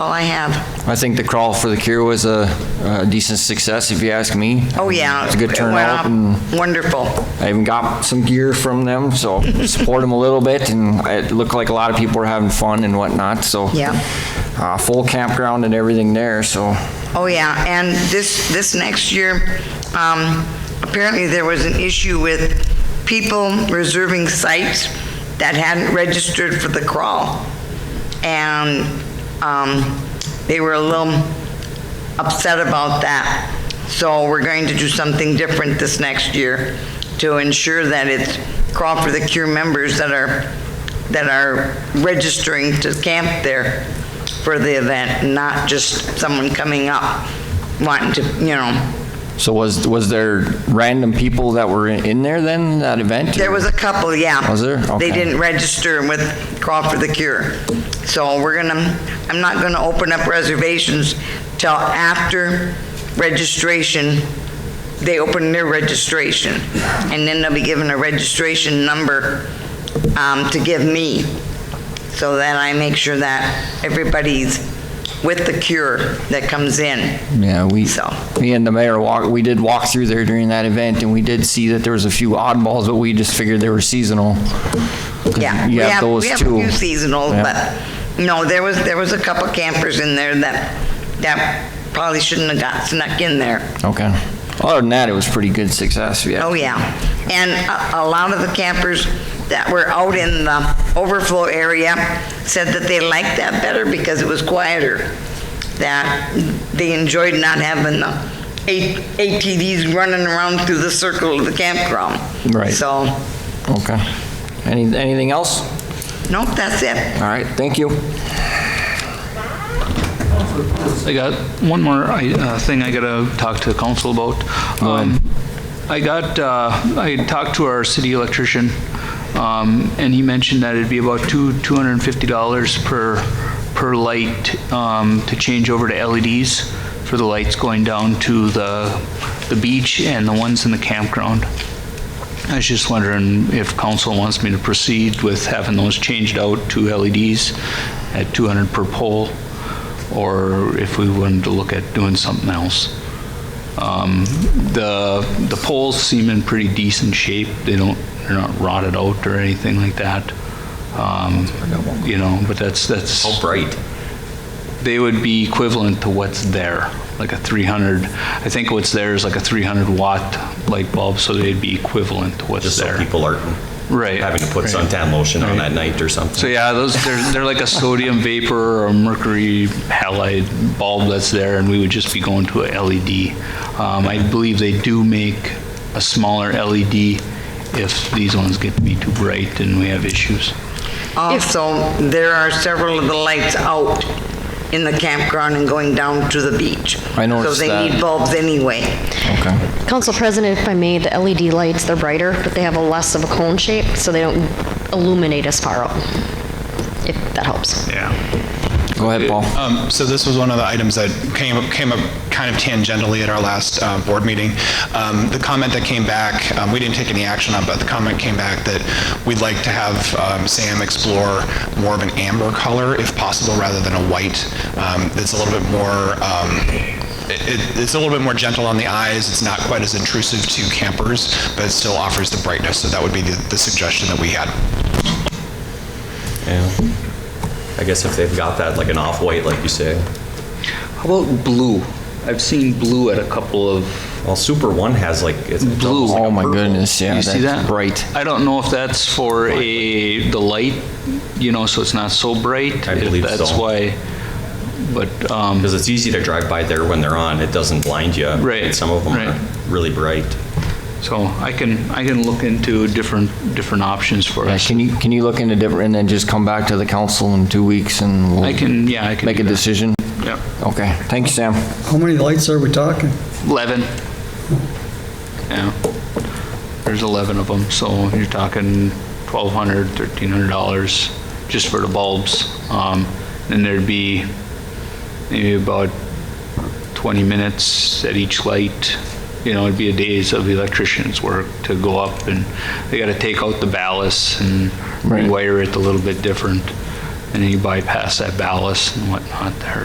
all I have. I think the Crawl for the Cure was a a decent success, if you ask me. Oh, yeah. It's a good It went turnout, up and Wonderful. I even got some gear from them, so support them a little bit, and it looked like a lot of people were having fun and whatnot, so. Yeah. Uh, Full campground and everything there, so. Oh, yeah, and this, this next year, um, apparently there was an issue with people reserving sites that hadn't registered for the crawl. And, um, they were a little upset about that. So we're going to do something different this next year to ensure that it's Crawl for the Cure members that are, that are registering to camp there for the event, not just someone coming up wanting to, you know. So was, was there random people that were in in there then, that event? There was a couple, yeah. Was there? They Okay. didn't register with Call for the Cure. So we're gonna, I'm not gonna open up reservations till after registration, they open their registration. And then they'll be given a registration number um, to give me, so that I make sure that everybody's with the cure that comes in. Yeah, we, So. me and the mayor walk, we did walk through there during that event, and we did see that there was a few oddballs, but we just figured they were seasonal. 'Cause Yeah, we You have have, those we have a too. few seasonals, Yeah. but, no, there was, there was a couple campers in there that, that probably shouldn't have got snuck in there. Okay. Other than that, it was pretty good success, yeah. Oh, yeah. And a, a lot of the campers that were out in the overflow area said that they liked that better because it was quieter, that they enjoyed not having the A- ATVs running around through the circle of the campground. Right. So, Okay. Any, anything else? nope, that's it. All right, thank you. I got one more I- uh, thing I gotta talk to council about. Um, I got, uh, I talked to our city electrician, um, and he mentioned that it'd be about two, $250 per, per light um, to change over to LEDs for the lights going down to the, the beach and the ones in the campground. I was just wondering if council wants me to proceed with having those changed out to LEDs at 200 per pole, or if we wanted to look at doing something else. Um, The, the poles seem in pretty decent shape. They don't, they're not rotted out or anything like that. Um, You know, but that's, that's. How bright? They would be equivalent to what's there, like a 300, I think what's there is like a 300 watt light bulb, so they'd be equivalent to what's Just so there. people aren't Right, having to put right. suntan lotion on that night or So something. yeah, those they're, they're like a sodium vapor or a mercury halide bulb that's there, and we would just be going to a LED. Um, I believe they do make a smaller LED if these ones get to be too bright and we have issues. Also, there are several of the lights out in the campground and going down to the beach. I noticed So they that. need bulbs anyway. Okay. Council President, if I may, the LED lights, they're brighter, but they have a less of a cone shape, so they don't illuminate as far out, if that helps. Go ahead, Paul. Um, So this was one of the items that came up, came up kind of tangentially at our last uh, board meeting. Um, The comment that came back, um, we didn't take any action on, but the comment came back that we'd like to have um, Sam explore more of an amber color, if possible, rather than a white. Um, That's a little bit more, um, it- it- it's a little bit more gentle on the eyes, it's not quite as intrusive to campers, but it still offers the brightness, so that would be the the suggestion that we had. Yeah. I guess if they've got that, like an off-white, like you say. How about blue? I've seen blue at a couple of Well, Super One has like, it's it's Blue. almost like a Oh my purple. goodness, yeah. You see that's that? Bright. I don't know if that's for a, the light, you know, so it's not so bright. I if believe That's so. why, but, um, Because it's easy to drive by there when they're on. It doesn't blind you. Right, And Some of them right. are really bright. so I can, I can look into different, different options for Yeah, us. can you, can you look into different, and then just come back to the council in two weeks and we'll I can, yeah, I can. make a do that. decision? Yep. Okay, thank you, Sam. How many lights are we talking? 11. Yeah. There's 11 of them, so you're talking 1,200, 1,300 dollars just for the bulbs. Um, And there'd be maybe about 20 minutes at each light. You know, it'd be a days of electrician's work to go up and they gotta take out the ballast and Right. rewire it a little bit different. And then you bypass that ballast and whatnot there,